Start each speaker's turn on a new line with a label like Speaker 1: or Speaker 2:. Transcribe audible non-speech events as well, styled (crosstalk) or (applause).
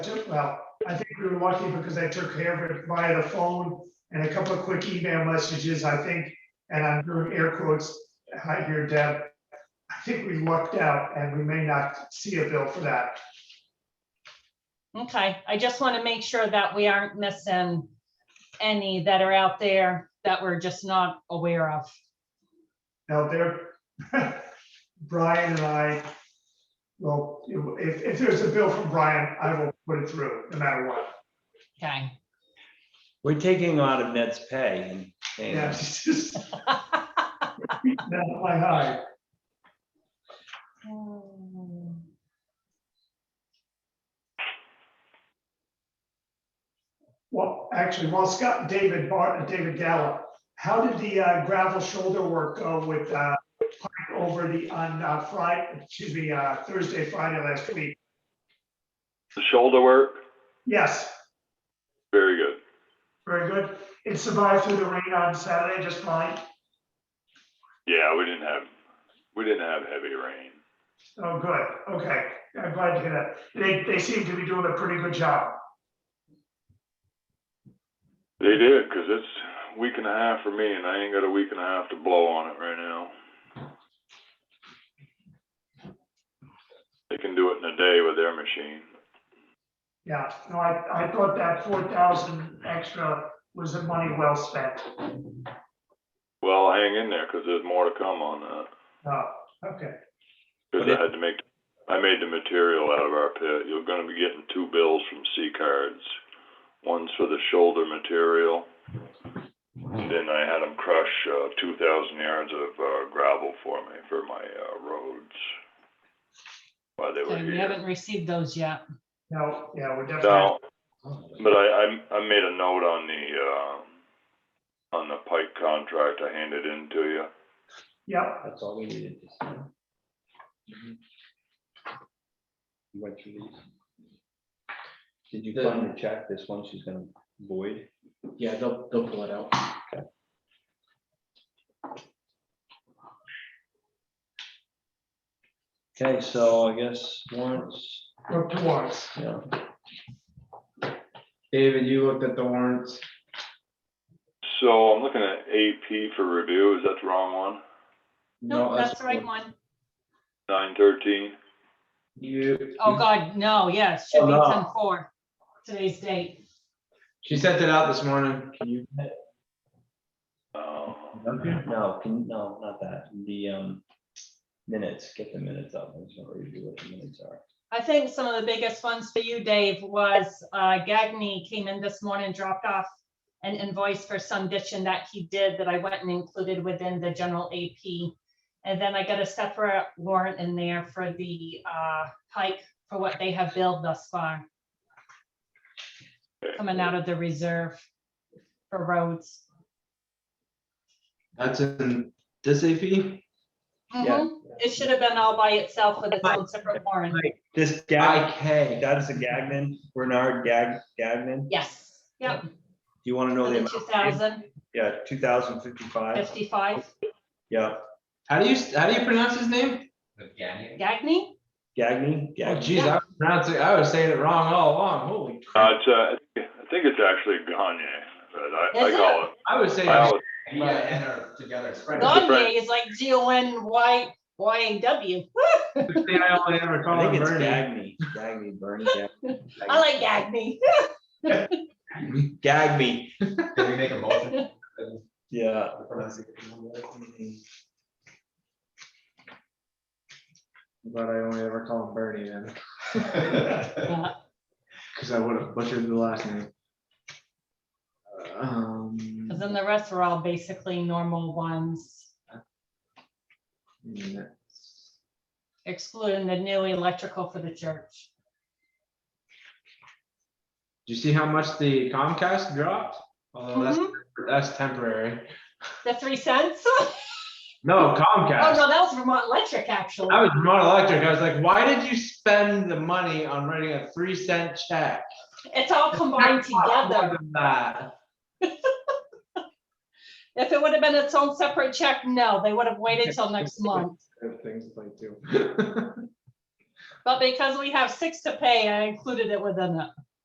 Speaker 1: well, I think we were lucky because I took care of it via the phone and a couple of quick email messages, I think. And I'm doing air quotes, hi here, Deb. I think we lucked out and we may not see a bill for that.
Speaker 2: Okay, I just want to make sure that we aren't missing any that are out there that we're just not aware of.
Speaker 1: Now there, (laughs) Brian and I, well, if, if there's a bill from Brian, I will put it through, no matter what.
Speaker 2: Okay.
Speaker 3: We're taking out of Ned's pay and
Speaker 1: (laughs)
Speaker 3: paying
Speaker 1: Yeah,
Speaker 3: him.
Speaker 1: it's just. That's my high.
Speaker 2: Oh.
Speaker 1: Well, actually, while Scott, David Bar, David Gallup, how did the uh, gravel shoulder work go with uh, Pike over the, on uh, Friday, excuse me, uh, Thursday, Friday last week?
Speaker 4: The shoulder work,
Speaker 1: Yes,
Speaker 4: very good.
Speaker 1: very good. It survived through the rain on Saturday, just fine.
Speaker 4: Yeah, we didn't have, we didn't have heavy rain.
Speaker 1: Oh, good, okay. I'm glad to hear that. They, they seem to be doing a pretty good job.
Speaker 4: They did, cause it's a week and a half for me and I ain't got a week and a half to blow on it right now. They can do it in a day with their machine.
Speaker 1: Yeah, no, I, I thought that four thousand extra was the money well spent.
Speaker 4: Well, hang in there, cause there's more to come on that.
Speaker 1: Oh, okay,
Speaker 4: Cause
Speaker 3: Okay.
Speaker 4: I had to make, I made the material out of our pit. You're gonna be getting two bills from C cards. One's for the shoulder material. Then I had them crush, uh, two thousand yards of, uh, gravel for me, for my, uh, roads. While they
Speaker 2: So
Speaker 4: were
Speaker 2: you
Speaker 4: here.
Speaker 2: haven't received those yet.
Speaker 1: no, yeah, we're definitely,
Speaker 4: Now, but I, I, I made a note on the, uh, on the pipe contract I handed in to you.
Speaker 1: yep,
Speaker 3: That's all we needed. to see. Mm-hmm.
Speaker 5: You went through these. Did you find the check, this one she's gonna void?
Speaker 6: Yeah, they'll, they'll pull it out.
Speaker 3: Okay, so I guess warrants,
Speaker 1: we're up to warrants.
Speaker 3: yeah.
Speaker 6: David, you looked at the warrants.
Speaker 4: So I'm looking at AP for review. Is that the wrong one?
Speaker 2: No, that's the right one.
Speaker 4: Nine thirteen?
Speaker 6: You.
Speaker 2: Oh, God, no, yes, should be
Speaker 3: Oh, no.
Speaker 2: ten four, today's date.
Speaker 6: She sent it out this morning. Can you?
Speaker 4: Oh.
Speaker 3: No, can, no, not that, the, um, minutes, get the minutes up, I just want to review what the minutes are.
Speaker 2: I think some of the biggest ones for you, Dave, was uh, Gagny came in this morning, dropped off an invoice for some ditching that he did that I went and included within the general AP. And then I got a separate warrant in there for the uh, pike for what they have billed thus far,
Speaker 4: Okay.
Speaker 2: coming out of the reserve for roads.
Speaker 6: That's in this AP?
Speaker 3: Yeah.
Speaker 2: Mhm. It should have been all by itself with its own separate warrant.
Speaker 3: This Gag,
Speaker 6: IK.
Speaker 3: that's a Gagnon, Bernard Gag, Gagnon, do
Speaker 2: Yes, yep,
Speaker 3: you want to know the
Speaker 2: two
Speaker 3: amount?
Speaker 2: thousand
Speaker 3: Yeah, two thousand fifty-five,
Speaker 2: fifty-five.
Speaker 3: yeah,
Speaker 6: How do you, how do you pronounce his name?
Speaker 2: Gagny?
Speaker 3: Gagnon,
Speaker 6: Oh,
Speaker 3: Gagnon,
Speaker 6: geez, I was pronouncing, I was saying it wrong all along. Holy
Speaker 4: Uh,
Speaker 6: crap.
Speaker 4: it's, uh, I think- I think it's actually Gagne, but I, I
Speaker 2: Is
Speaker 4: call it,
Speaker 6: I was saying.
Speaker 4: I always,
Speaker 7: Yeah, and her together.
Speaker 2: Gagne is like G O N Y Y A W. Woo!
Speaker 6: the thing I only ever
Speaker 3: I
Speaker 6: call
Speaker 3: think
Speaker 6: him
Speaker 3: it's
Speaker 6: Bernie.
Speaker 3: Gagny, Gagny, Bernie,
Speaker 2: I like Gagne.
Speaker 3: Gagby,
Speaker 7: (laughs) Can we make a motion?
Speaker 3: yeah.
Speaker 7: for pronunciation?
Speaker 6: But I only ever call him Bernie (laughs) then,
Speaker 2: Yeah.
Speaker 6: because I would have butchered the last name. Um,
Speaker 2: Cause then the rest are all basically normal ones,
Speaker 6: minutes.
Speaker 2: excluding the new electrical for the church.
Speaker 6: Do you see how much the Comcast dropped? Although Oh, that's, that's temporary.
Speaker 2: Mm-hmm. The three cents? Oh,
Speaker 6: No, Comcast.
Speaker 2: no, that was Vermont Electric, actually.
Speaker 6: I was Vermont Electric. I was like, why did you spend the money on writing a three cent check?
Speaker 2: It's all combined together.
Speaker 6: More than that.
Speaker 2: If it would have been its own separate check, no, they would have waited till next month.
Speaker 6: Things like too. (laughs)
Speaker 2: But because we have six to pay, I included it within it.